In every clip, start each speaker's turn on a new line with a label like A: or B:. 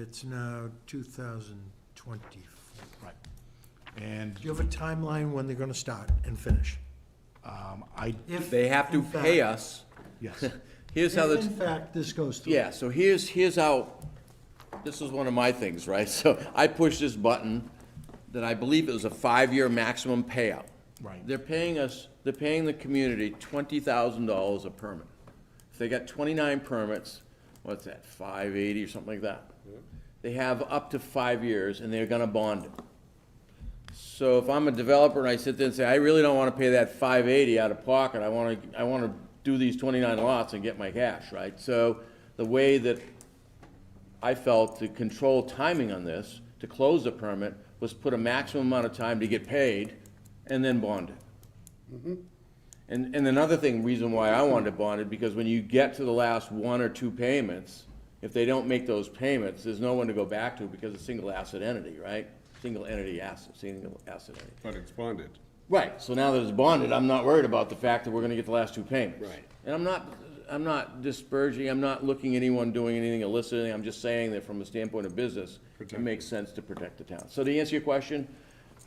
A: It's now 2024.
B: Right. And
A: Do you have a timeline when they're going to start and finish?
B: um, I,
A: If
C: They have to
A: in fact-
C: pay us.
B: yes,
C: Here's how
A: If
C: that's,
A: in fact this goes through.
C: yeah, so here's, here's how, this is one of my things, right? So I pushed this button that I believe it was a five-year maximum payout.
B: Right.
C: They're paying us, they're paying the community twenty thousand dollars a permit. If they got twenty-nine permits, what's that, five eighty or something like that? They have up to five years and they're gonna bond it. So if I'm a developer and I sit there and say, I really don't wanna pay that five eighty out of pocket, I wanna, I wanna do these twenty-nine lots and get my cash, right? So the way that I felt to control timing on this, to close the permit, was put a maximum amount of time to get paid and then bond it. And, and another thing, reason why I wanted to bond it, because when you get to the last one or two payments, if they don't make those payments, there's no one to go back to because it's a single asset entity, right? Single entity asset, single asset entity.
D: But it's bonded.
C: Right, so now that it's bonded, I'm not worried about the fact that we're gonna get the last two payments.
D: Right.
C: And I'm not, I'm not disparaging, I'm not looking at anyone doing anything illicit, I'm just saying that from a standpoint of business, it
D: Protect
C: makes sense to protect the town. So to answer your question,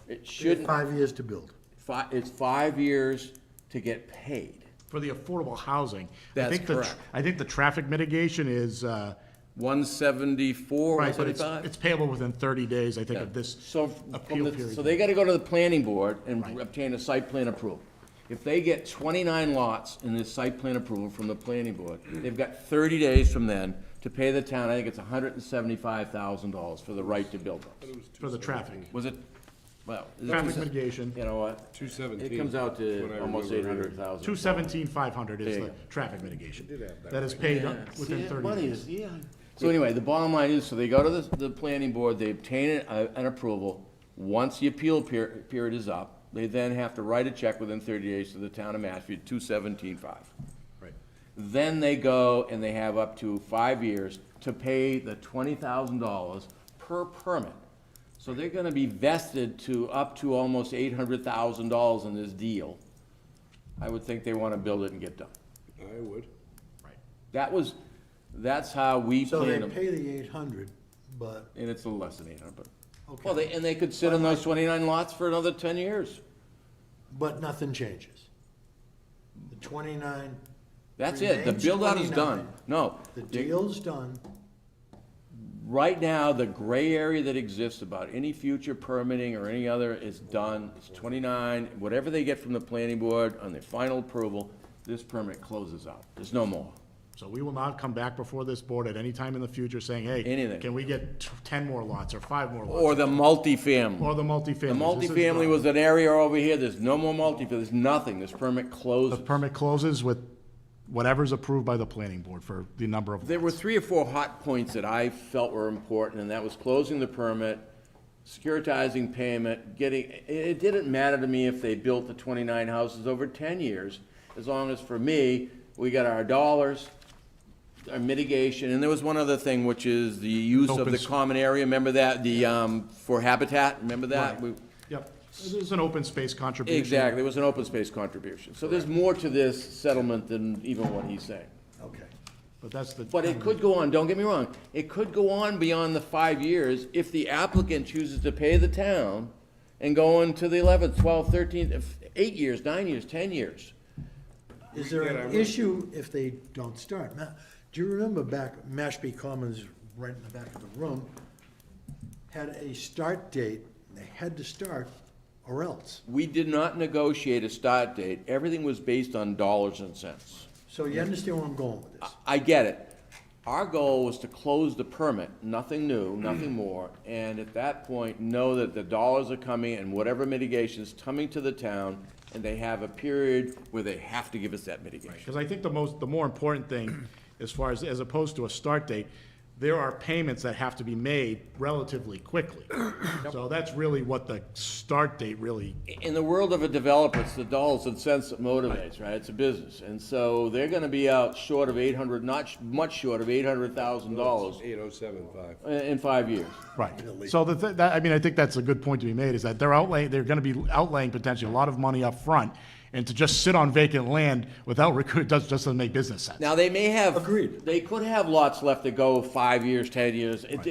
C: it
A: They have
C: shouldn't,
A: Five years to build.
C: fi- it's five years to get paid.
B: for the affordable housing. I
C: That's
B: think the tr-
C: correct.
B: I think the traffic mitigation is, uh,
C: One seventy-four, one
B: right, but it's,
C: seventy-five?
B: it's payable within thirty days, I think, of this
C: So, from
B: appeal
C: the-
B: period.
C: so they gotta go to the planning board and
B: Right.
C: obtain a site plan approval. If they get twenty-nine lots in this site plan approval from the planning board, they've got thirty days from then to pay the town, I think it's hundred and seventy-five thousand dollars for the right to build those.
B: for the traffic.
C: Was it, well. is it
B: Traffic
C: two se-
B: mitigation.
C: You know what?
D: 217.
C: It comes out
D: That's what
C: to
D: I
C: almost eight
D: remember
C: hundred
D: reading.
C: thousand.
B: Two seventeen, five hundred is
C: There you
B: the
C: go.
B: traffic mitigation.
D: did have that
B: That is paid up within thirty days.
C: yeah. So anyway, the bottom line is, so they go to the, the planning board, they obtain an, uh, an approval. Once the appeal per- period is up, they then have to write a check within thirty days to the town of Mashpee, two seventeen five.
B: Right.
C: Then they go and they have up to five years to pay the twenty thousand dollars per permit. So they're gonna be vested to up to almost eight hundred thousand dollars in this deal. I would think they wanna build it and get done.
D: I would.
B: Right.
C: That was, that's how we
A: So they
C: planned them,
A: pay the 800, but,
C: and it's a little less than eight hundred, but, well,
A: Okay.
C: they, and they could sit on those twenty-nine lots for another ten years.
A: but nothing changes. The 29,
C: That's it, the
A: Remains
C: build-out is
A: 29.
C: done, no.
A: the
C: they-
A: deal's done.
C: Right now, the gray area that exists about any future permitting or any other is done, it's twenty-nine, whatever they get from the planning board on their final approval, this permit closes out, there's no more.
B: So we will not come back before this board at any time in the future saying, hey.
C: Anything.
B: Can we get t- ten more lots or five more lots?
C: Or the multifamily.
B: Or the multifamily.
C: The multifamily was an area over here, there's no more multifamily, there's nothing, this permit
B: The
C: closes.
B: permit closes with whatever's approved by the planning board for the number of
C: There were
B: lots.
C: three or four hot points that I felt were important, and that was closing the permit, securitizing payment, getting, it, it didn't matter to me if they built the twenty-nine houses over ten years, as long as for me, we got our dollars, our mitigation, and there was one other thing, which is the use of
B: Open
C: the
B: s-
C: common area, remember that, the, um, for habitat, remember that?
B: Right.
C: We-
B: Yep, there's an open space contribution.
C: Exactly, it was an open space contribution, so there's more to this settlement than even what he's saying.
A: Okay.
B: But that's the.
C: But it could go on, don't get me wrong, it could go on beyond the five years if the applicant chooses to pay the town and go on to the eleventh, twelfth, thirteenth, if- eight years, nine years, ten years.
A: Is there
D: Yeah, I
A: an
D: would.
A: issue if they don't start? Ma- Do you remember back, Mashpee Commons, right in the back of the room, had a start date, they had to start or else.
C: We did not negotiate a start date, everything was based on dollars and cents.
A: So you understand where I'm going with this?
C: I get it. Our goal was to close the permit, nothing new, nothing more, and at that point, know that the dollars are coming and whatever mitigation's coming to the town, and they have a period where they have to give us that mitigation.
B: Because I think the most, the more important thing, as far as, as opposed to a start date, there are payments that have to be made relatively quickly. So that's really what the start date really,
C: in the world of a developer, it's the dollars and cents that motivates, right? It's a business. And so they're gonna be out short of eight hundred, not sh- much short of eight hundred thousand dollars
D: 8075.
C: in five years.
B: right. So the, thi- that, I mean, I think that's a good point to be made, is that they're outlaying, they're gonna be outlaying potentially a lot of money up front, and to just sit on vacant land without recruit, does, just doesn't make business sense.
C: Now, they may have.
A: Agreed.
C: They could have lots left that go five years, ten years. It,